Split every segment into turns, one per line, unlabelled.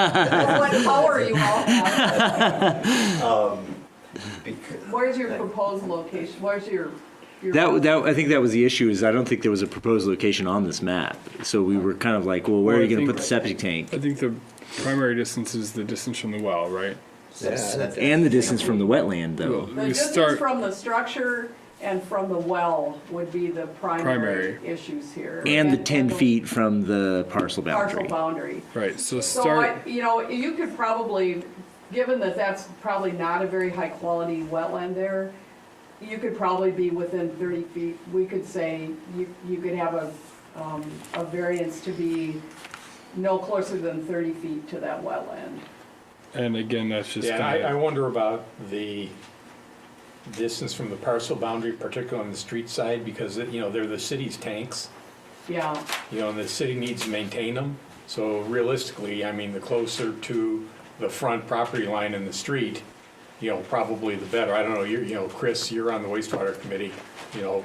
What power you all have.
Because-
Where's your proposed location? Where's your? your-
That, that, I think that was the issue, is I don't think there was a proposed location on this map. So we were kind of like, well, where are
Well, I
you gonna
think-
put the septic tank?
I think the primary distance is the distance from the well, right?
Yeah, that-
And the distance from the wetland, though.
The
We
distance
start,
from the structure and from the well would be the primary
Primary.
issues here.
And the ten feet from the parcel
Partial
boundary.
boundary.
right, so
So I,
start,
you know, you could probably, given that that's probably not a very high quality wetland there, you could probably be within thirty feet, we could say, you, you could have a, um, a variance to be no closer than thirty feet to that wetland.
and again, that's just
Yeah, and I, I
kind of,
wonder about the distance from the parcel boundary, particularly on the street side, because, you know, they're the city's tanks,
Yeah,
you know, and the city needs to maintain them. So realistically, I mean, the closer to the front property line in the street, you know, probably the better. I don't know, you're, you know, Chris, you're on the wastewater committee, you know,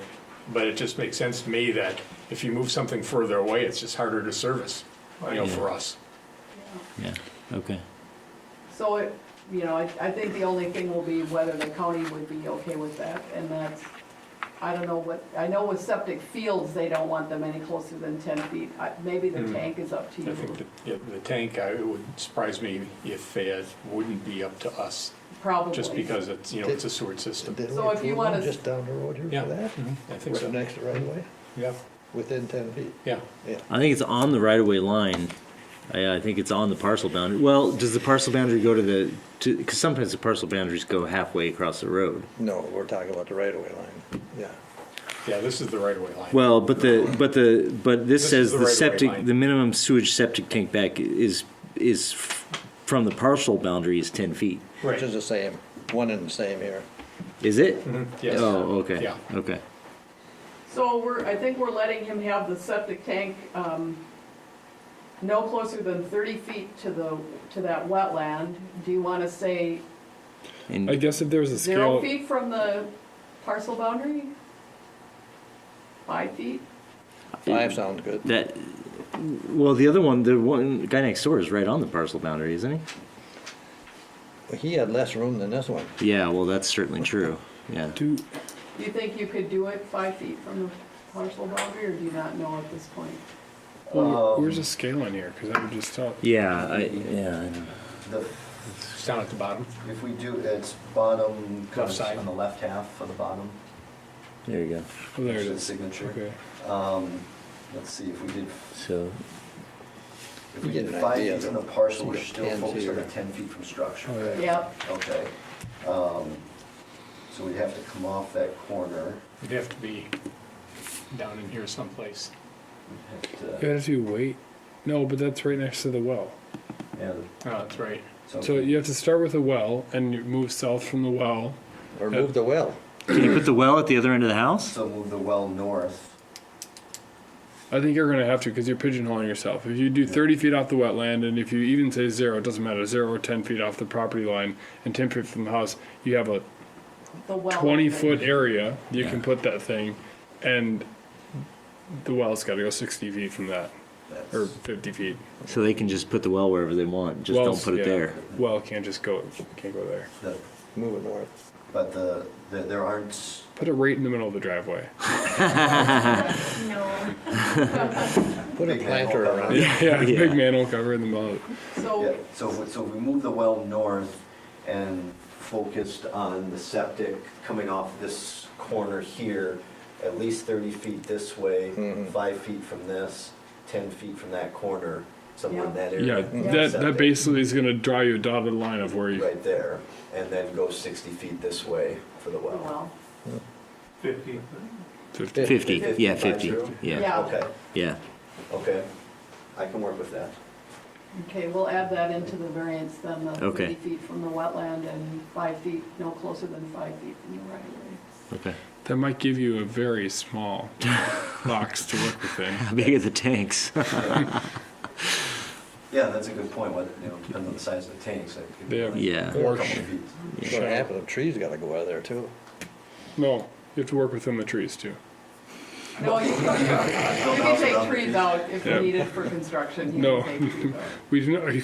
but it just makes sense to me that if you move something further away, it's just harder to service, you know, for us.
Yeah, okay.
so it, you know, I, I think the only thing will be whether the county would be okay with that, and that's, I don't know what, I know with septic fields, they don't want them any closer than ten feet, I, maybe the tank is up to you.
Hmm. I think that, yeah, the tank, I, it would surprise me if it wouldn't be up to us.
Probably.
Just because it's, you know, it's a sewer system.
Didn't we
So if you
approve
wanna
one
s-
Just down the road here
Yeah,
for that?
mhm, I think
Right
so.
next to right away,
Yeah,
within ten feet.
yeah.
I think it's on the right of way line. I, I think it's on the parcel boundary. Well, does the parcel boundary go to the, to, cause sometimes the parcel boundaries go halfway across the road.
No, we're talking about the right away line, yeah.
Yeah, this is the right-of-way line.
Well, but the, but the, but this
This
says
is the
the
right-of-way
septic,
line.
the minimum sewage septic tank back is, is f- from the parcel boundary is ten feet.
Which
Right.
is the same, one and the same here.
Is it?
yes.
Oh, okay.
Yeah.
Okay.
So we're, I think we're letting him have the septic tank, um, no closer than thirty feet to the, to that wetland. Do you wanna say
And
I guess if there was a
zero
scale,
feet from the parcel boundary? Five feet?
Five sounds good.
that, well, the other one, the one guy next door is right on the parcel boundary, isn't
He had less room than this one.
he? Yeah. Well, that's certainly true. Yeah.
do,
Do you think you could do it five feet from the parcel boundary, or do you not know at this point?
well, where's the scale in here? Cause that would just tell.
Yeah. I, yeah. I know.
The,
It's down at the bottom.
if we do, it's bottom, kind
Left
of
side.
on the left half of the bottom.
There you go.
Oh, there it
the
is.
Signature.
Okay.
Um, let's see, if we did,
So
if we
You get
did
an
five
idea,
feet from
though.
the parcel, we're
You got
still
10
focused on the
here.
ten feet from structure.
Oh, yeah.
Yep,
Okay, um, so we'd have to come off that corner.
It'd have to be down in here someplace.
We'd have
You
to-
have to wait, no, but that's right next to the well.
Yeah,
Oh, that's right.
So you have to start with a well and you move south from the well.
Or move the well.
can you put the well at the other end of the house?
so move the well north.
I think you're going to have to because you're pigeonholing yourself. If you do 30 feet off the wetland, and if you even say zero, it doesn't matter, zero or 10 feet off the property line and 10 feet from the house, you have a
the well.
20 foot area you can put that thing, and the well's got to go 60 feet from that
That's-
or 50 feet.
So they can just put the well wherever they want. Just
Wells,
don't put it
yeah,
there.
Well, can't just go, can't go there.
the-
Move it north.
But the, the- there aren't,
Put it right in the middle of the driveway.
No.
Put a
Big manhole
planter
cover.
around it.
Yeah, big manhole cover in the middle.
yeah,
So,
so, we- so we move the well north and focused on the septic coming off this corner here, at least thirty feet this way, five feet from this, ten feet from that corner, somewhere in that
Yeah,
area.
that, that
Septic
basically is going to draw you a dotted line of where you
Right there, and then go sixty feet this way for the
the oh,
well.
well,
Fifty.
50.
Fifty. Yeah. Fifty.
Fifty-five, true.
Yeah.
Yeah.
Okay,
Yeah.
okay, I can work with that.
okay, we'll add that into the variance then, the
Okay.
thirty feet from the wetland and five feet, no closer than five feet from the right of way.
Okay.
That might give you a very small box to work within.
How big are the tanks?
Yeah, that's a good point, whether, you know, depending on the size of the tanks, I could.
They have
yeah.
A couple
Porsche.
feet.
What's gonna happen, the trees gotta go out of there too.
No, you have to work within the trees too.
No, you you can take trees out if you
Yeah.
need it for construction. you
No.
can take trees out.
We do not. Are you